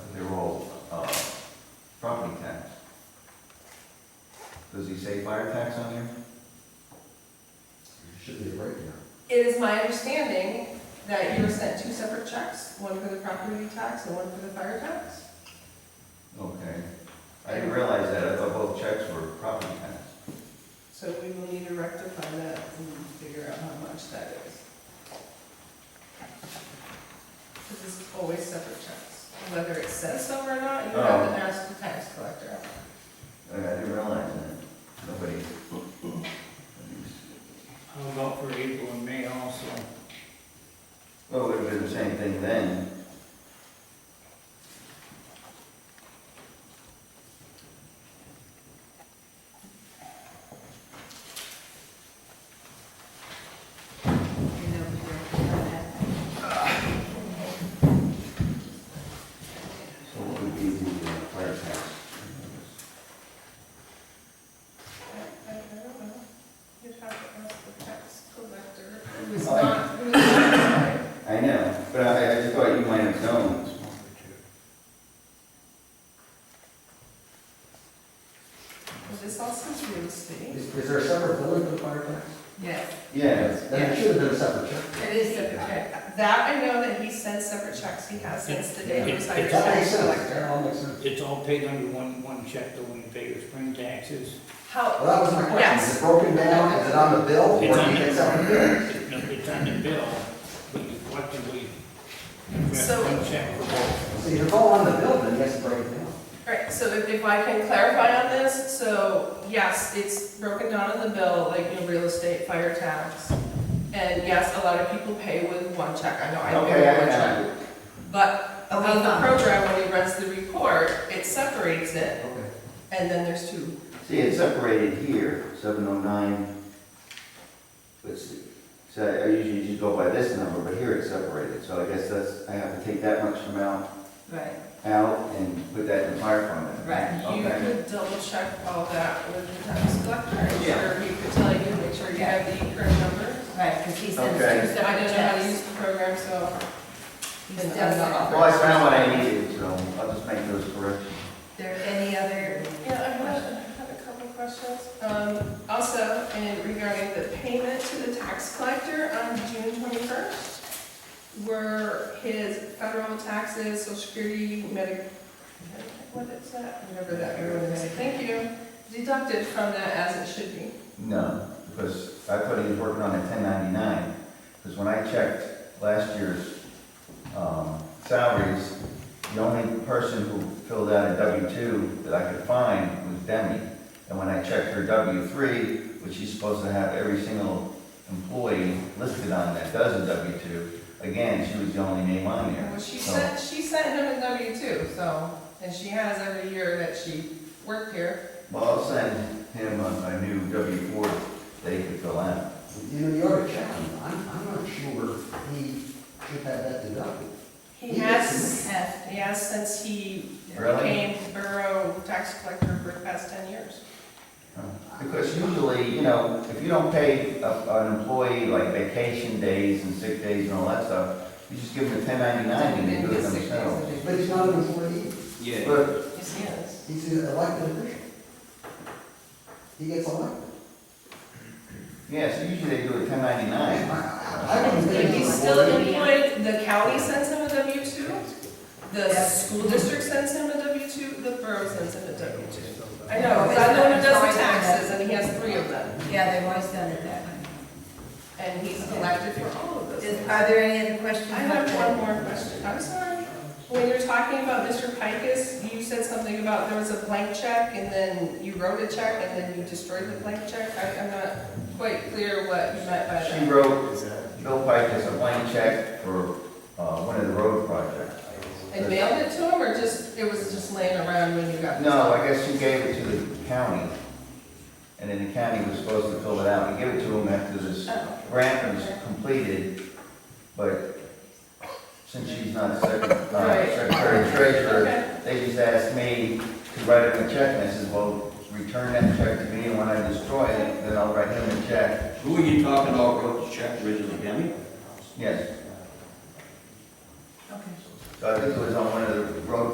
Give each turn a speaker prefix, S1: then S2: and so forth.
S1: uh, Does he say fire tax on there?
S2: Should be right now.
S3: It is my understanding that you were sent two separate checks, one for the property tax and one for the fire tax.
S1: Okay. I didn't realize that, I thought both checks were property tax.
S3: So we will need to rectify that and figure out how much that is. Because it's always separate checks, whether it says so or not, you have to ask the tax collector.
S1: I I didn't realize that, nobody.
S4: How about for April and May also?
S1: Well, it would have been the same thing then.
S3: You know, you're on that.
S1: So what would be the uh, fire tax?
S3: I I don't know. You'd have to ask the tax collector. Who's not, who's not,
S1: I know, but I, I just thought you might have known.
S3: this also is real estate.
S2: Is, is there a separate billing for fire tax?
S3: Yes.
S1: Yes,
S2: Then it should have been a separate check.
S3: It is separate check. That I know that he sends separate checks, he has since the day he was hired
S4: It's
S3: as
S2: That makes
S3: tax
S2: sense,
S3: collector.
S2: that all makes sense.
S4: It's all paid under one, one check, though, when you pay your spring taxes.
S2: Well,
S3: How,
S2: that was my question, is
S3: Yes.
S2: it broken down, is it on the bill, or
S4: It's
S2: do
S4: on
S2: you
S4: the,
S2: get separate bills?
S4: no, it's on the bill, but you collectively, you
S3: So-
S4: have one check for both.
S2: See, if it's all on the bill, then yes, break it down.
S3: alright, so if, if I can clarify on this, so yes, it's broken down in the bill, like, you know, real estate, fire tax. And yes, a lot of people pay with one check, I know I pay
S1: Okay, I
S3: with one check.
S1: got it.
S3: But on the program, when he runs the report, it separates it
S2: Okay.
S3: And then there's two.
S1: See, it's separated here, seven oh nine. Let's see, so I usually just go by this number, but here it's separated, so I guess that's, I have to take that much amount
S3: Right.
S1: out and put that in the fire fund. then.
S3: You
S1: Okay.
S3: could double check all that with the tax collector, I'm
S1: Yeah.
S3: sure he could tell you, make sure you have the correct number.
S5: Right, because he sends
S1: Okay.
S5: two
S3: So I don't
S5: separate
S3: know how to
S5: checks.
S3: use the program, so.
S5: He's
S3: And
S5: done
S3: that's-
S5: that.
S1: Well, I found what I needed, so I'll just make those corrections.
S5: There any other,
S3: Yeah, I had, I had a couple of questions. Um, also, and regarding the payment to the tax collector on June twenty-first, were his federal taxes, social security, medic, what is that? Whatever that everyone is, thank you, deducted from that as it should be.
S1: No, because I thought he was working on a ten ninety-nine, because when I checked last year's, um, salaries, the only person who filled out a W two that I could find was Demi. And when I checked her W three, which she's supposed to have every single employee listed on that does a W two, again, she was the only name on there.
S3: Well, she
S1: So-
S3: sent, she sent him a W two, so, and she has every year that she worked here.
S1: Well, I'll send him a, a new W four that he could fill out.
S2: You know, you ought to check him, I'm, I'm not sure he should have that deducted.
S3: He has,
S5: F,
S3: he has since he
S1: Really?
S3: became borough tax collector for the past ten years.
S1: Because usually, you know, if you don't pay a- an employee like vacation days and sick days and all that stuff, you just give them a ten ninety-nine and they do it themselves.
S2: But he's not an employee,
S1: But,
S3: Yes, he is.
S2: he's an elected official. He gets elected.
S1: yeah, so usually they do a ten ninety-nine.
S2: I I wouldn't think
S3: He's
S2: he's an
S3: still
S2: employee.
S3: employed, the county sends him a W two, the school district sends him a W two, the borough sends him a W two. I know, because I know he does the taxes, and he has three of them,
S5: yeah, they've always done it that way.
S3: and he's elected for all of those.
S5: Is-
S3: things.
S5: Are there any other questions?
S3: I have one more question, I'm sorry. When you're talking about Mr. Pikus, you said something about there was a blank check, and then you wrote a check, and then you destroyed the blank check. I- I'm not quite clear what you meant by
S1: She
S3: that.
S1: wrote, Bill Pike has a blank check for, uh, one of the road projects.
S3: And mailed it to him, or just, it was just laying around when you got?
S1: No, I guess she gave it to the county, and then the county was supposed to fill it out, we give it to them after this
S3: Oh.
S1: grant was completed, but since she's not second- uh,
S3: Right.
S1: secretary treasurer,
S3: Oh, Okay,
S1: they just asked me to write him a check, and I said, well, return that check to me, and when I destroy it, then I'll write him a check.
S6: Who are you talking about wrote the check originally, Demi?
S1: Yes,
S5: Okay.
S1: so I think it was on one of the road